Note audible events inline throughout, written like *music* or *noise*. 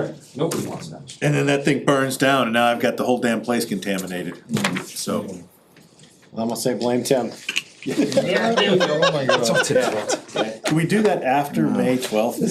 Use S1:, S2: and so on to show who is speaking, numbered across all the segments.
S1: Correct, nobody wants that.
S2: And then that thing burns down and now I've got the whole damn place contaminated, so.
S3: I'm gonna say blame Tim.
S4: Oh my god.
S2: Can we do that after May twelfth?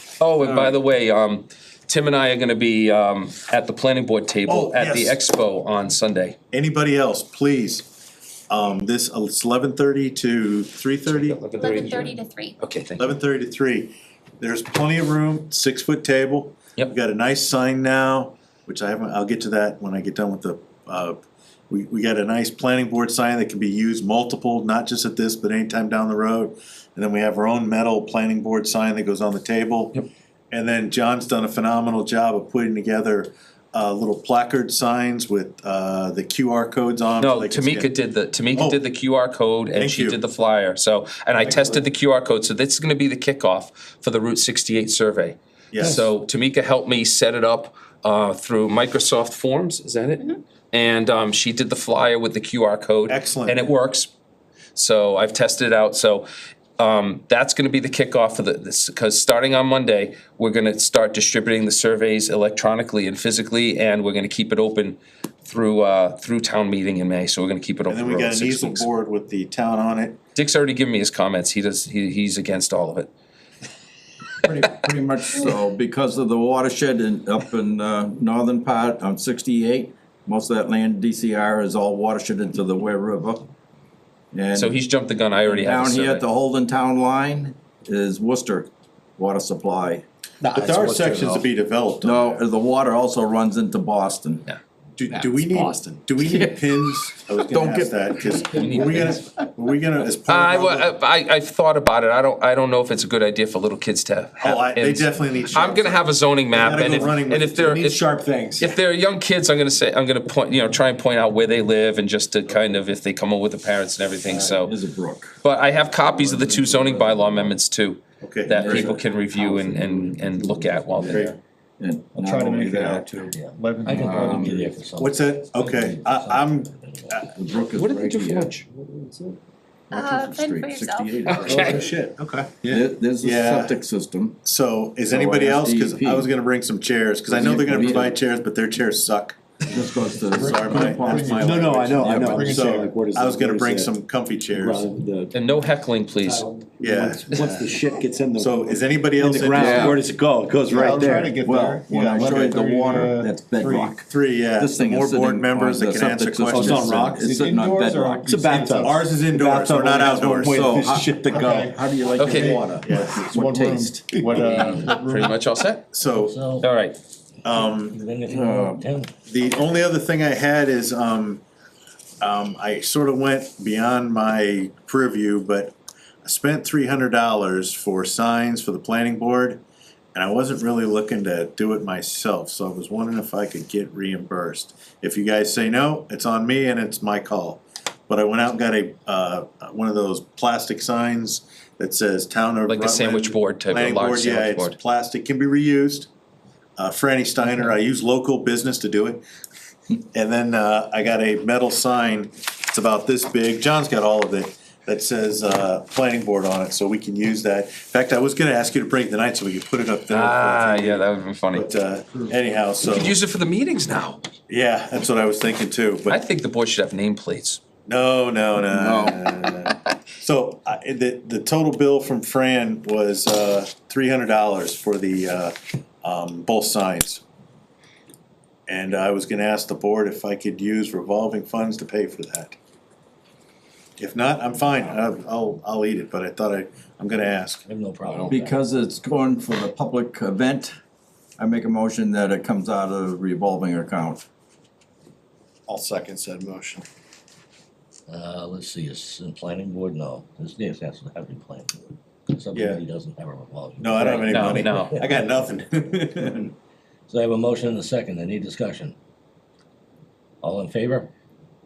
S1: *laughs* Oh, and by the way, um, Tim and I are gonna be, um, at the planning board table
S2: Oh,
S1: at the
S2: yes.
S1: expo on Sunday.
S2: Anybody else, please, um, this, it's eleven thirty to three thirty.
S5: Eleven thirty to three.
S1: Okay, thank you.
S2: Eleven thirty to three, there's plenty of room, six foot table.
S1: Yep.
S2: We've got a nice sign now, which I haven't, I'll get to that when I get done with the, uh, we, we got a nice planning board sign that can be used multiple, not just at this, but anytime down the road. And then we have our own metal planning board sign that goes on the table.
S1: Yep.
S2: And then John's done a phenomenal job of putting together, uh, little placard signs with, uh, the QR codes on.
S1: No,
S2: so they can scan.
S1: Tamika did the, Tamika
S2: Oh.
S1: did the QR code and
S2: Thank
S1: she
S2: you.
S1: did the flyer, so, and I tested the QR code, so this is gonna be the kickoff for the Route sixty-eight survey.
S2: Yes.
S1: So Tamika helped me set it up, uh, through Microsoft Forms, is that it? And, um, she did the flyer with the QR code.
S2: Excellent.
S1: And it works, so I've tested it out, so, um, that's gonna be the kickoff of the, this, cause starting on Monday, we're gonna start distributing the surveys electronically and physically, and we're gonna keep it open through, uh, through town meeting in May, so we're gonna keep it open
S2: And
S1: for
S2: then we
S1: over
S2: got an
S1: six
S2: easel
S1: weeks.
S2: board with the town on it.
S1: Dick's already given me his comments, he does, he, he's against all of it.
S4: Pretty, pretty much so, because of the watershed in, up in, uh, northern part on sixty-eight, most of that land DCR is all watershed into the Ware River. And
S1: So he's jumped the gun, I already have a
S4: down here at the
S1: survey.
S4: Holden Town Line is Worcester Water Supply.
S2: But there are sections to be developed. on
S4: No,
S2: there.
S4: the water also runs into Boston.
S1: Yeah.
S2: Do, do we
S6: That's
S2: need,
S6: Boston.
S2: do we
S1: *laughs*
S2: need pins? I was
S4: Don't
S2: gonna ask
S4: get-
S2: that, cause are *laughs* we
S1: need
S2: gonna, are we gonna, as
S1: Uh, I,
S2: part
S1: wa-
S2: of.
S1: I, I've thought about it, I don't, I don't know if it's a good idea for little kids to have.
S2: Oh, I, they
S1: pins.
S2: definitely need.
S1: I'm gonna
S2: shirts.
S1: have a zoning map,
S2: gotta
S1: and
S2: go
S1: if,
S2: running
S1: and
S2: with
S1: if
S2: it.
S1: they're,
S6: Need
S1: if,
S6: sharp things.
S1: if they're young kids, I'm gonna say, I'm gonna point, you know, try and point out where they live and just to kind of, if they come over with the parents and everything, so.
S4: Is a brook.
S1: But I have copies of the two zoning bylaw amendments too,
S2: Okay.
S1: that people can review and, and, and look at while they're there.
S4: And
S7: I'll
S4: not
S7: try to
S4: only
S7: make it
S4: that,
S7: out to eleven.
S6: I can probably be there for something.
S2: What's that? Okay, I, I'm,
S4: The brook is
S7: What did they
S4: right
S7: do for
S4: here.
S7: lunch?
S5: Uh, fend for
S4: Street,
S5: yourself.
S4: 68.
S2: oh, shit, okay.
S4: There- There's a
S2: Yeah.
S4: septic system.
S2: So is
S4: So I
S2: anybody
S4: asked
S2: else, cause I
S4: DEP.
S2: was gonna bring some chairs, cause I know they're gonna
S4: Yeah.
S2: provide chairs, but their chairs suck.
S4: This goes to. the
S2: Sorry, my, that's my.
S3: No, no, I
S2: language.
S3: know, I
S4: Yeah,
S3: know,
S4: but
S3: I'm
S7: bring it
S3: saying
S7: down.
S3: like, what is.
S2: I
S3: it-
S2: was gonna
S3: what is
S2: bring
S3: it?
S2: some comfy chairs,
S3: Rather than the-
S1: And no heckling,
S6: *laughs*
S1: please.
S2: yeah.
S3: Once once the shit gets in the.
S2: So is anybody
S3: In
S2: else?
S3: the
S2: interested?
S3: ground, where does it go? It goes right
S7: I'll try to
S3: there.
S7: get
S4: Well,
S7: there.
S4: when I
S7: Yeah,
S4: showed the
S7: 11:30 to,
S4: water,
S7: uh,
S4: that's
S7: three.
S4: bedrock.
S2: Three, yeah,
S4: This thing
S2: more
S4: is
S2: board
S4: sitting
S2: members
S4: on
S2: that
S4: the
S2: can answer
S4: septic system.
S2: questions.
S3: Oh, it's on rocks?
S4: It's sitting on
S7: Indoors or-
S4: bedrock.
S3: It's a bathtub.
S2: Ours is indoors,
S3: Bathtub
S2: we're not
S3: only has one
S2: outdoors,
S3: way
S2: so
S3: for this shit to go.
S4: How do you like
S1: Okay.
S4: the water?
S2: Yeah.
S7: One
S4: What
S7: room.
S4: taste?
S7: What, uh,
S1: Pretty much all set?
S2: So,
S6: So,
S1: All right,
S2: um,
S6: then if you want to tell.
S2: the only other thing I had is, um, um, I sort of went beyond my purview, but I spent three hundred dollars for signs for the planning board. And I wasn't really looking to do it myself, so I was wondering if I could get reimbursed. If you guys say no, it's on me and it's my call. But I went out and got a, uh, one of those plastic signs that says town of
S1: like a sandwich
S2: Rutland
S1: board type, a
S2: planning
S1: large
S2: board, yeah,
S1: sandwich
S2: it's
S1: board.
S2: plastic, can be reused. Uh, Franny Steiner, I use local business to do it. And then, uh, I got a metal sign, it's about this big, John's got all of it, that says, uh, planning board on it, so we can use that. In fact, I was gonna ask you to bring it tonight so we could put it up there.
S1: Ah, yeah, that would've been funny.
S2: But, uh, anyhow, so,
S1: Could use it for the meetings now.
S2: yeah, that's what I was thinking too,
S1: I
S2: but
S1: think the board should have nameplates.
S2: no, no, no, no, no, no, no. So, I, the, the total bill from Fran was, uh, three hundred dollars for the, uh, um, both signs. And I was gonna ask the board if I could use revolving funds to pay for that. If not, I'm fine, I'll, I'll, I'll eat it, but I thought I, I'm gonna ask.
S6: I have no problem. with that.
S4: Because it's going for the public event, I make a motion that it comes out of revolving account.
S3: I'll second said motion.
S6: Uh, let's see, is the planning board, no, this, this has to have a planning board. Subcommittee doesn't have a revolving.
S2: No, I don't have any
S1: No,
S2: money.
S1: no.
S2: I got nothing. *laughs*
S6: So I have a motion and a second, any discussion? All in favor?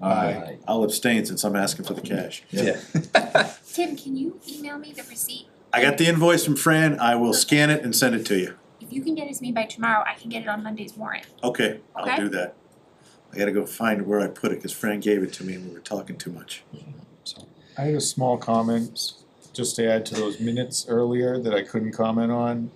S6: Aye.
S2: I'll abstain since I'm asking for the cash.
S5: Tim, can you email me the receipt?
S2: I got the invoice from Fran, I will scan it and send it to you.
S5: If you can get it to me by tomorrow, I can get it on Monday's warrant.
S2: Okay, I'll
S5: Okay.
S2: do that. I gotta go find where I put it, cause Fran gave it to me and we were talking too much.
S7: I had a small comment. just to add to those minutes earlier that I couldn't comment on,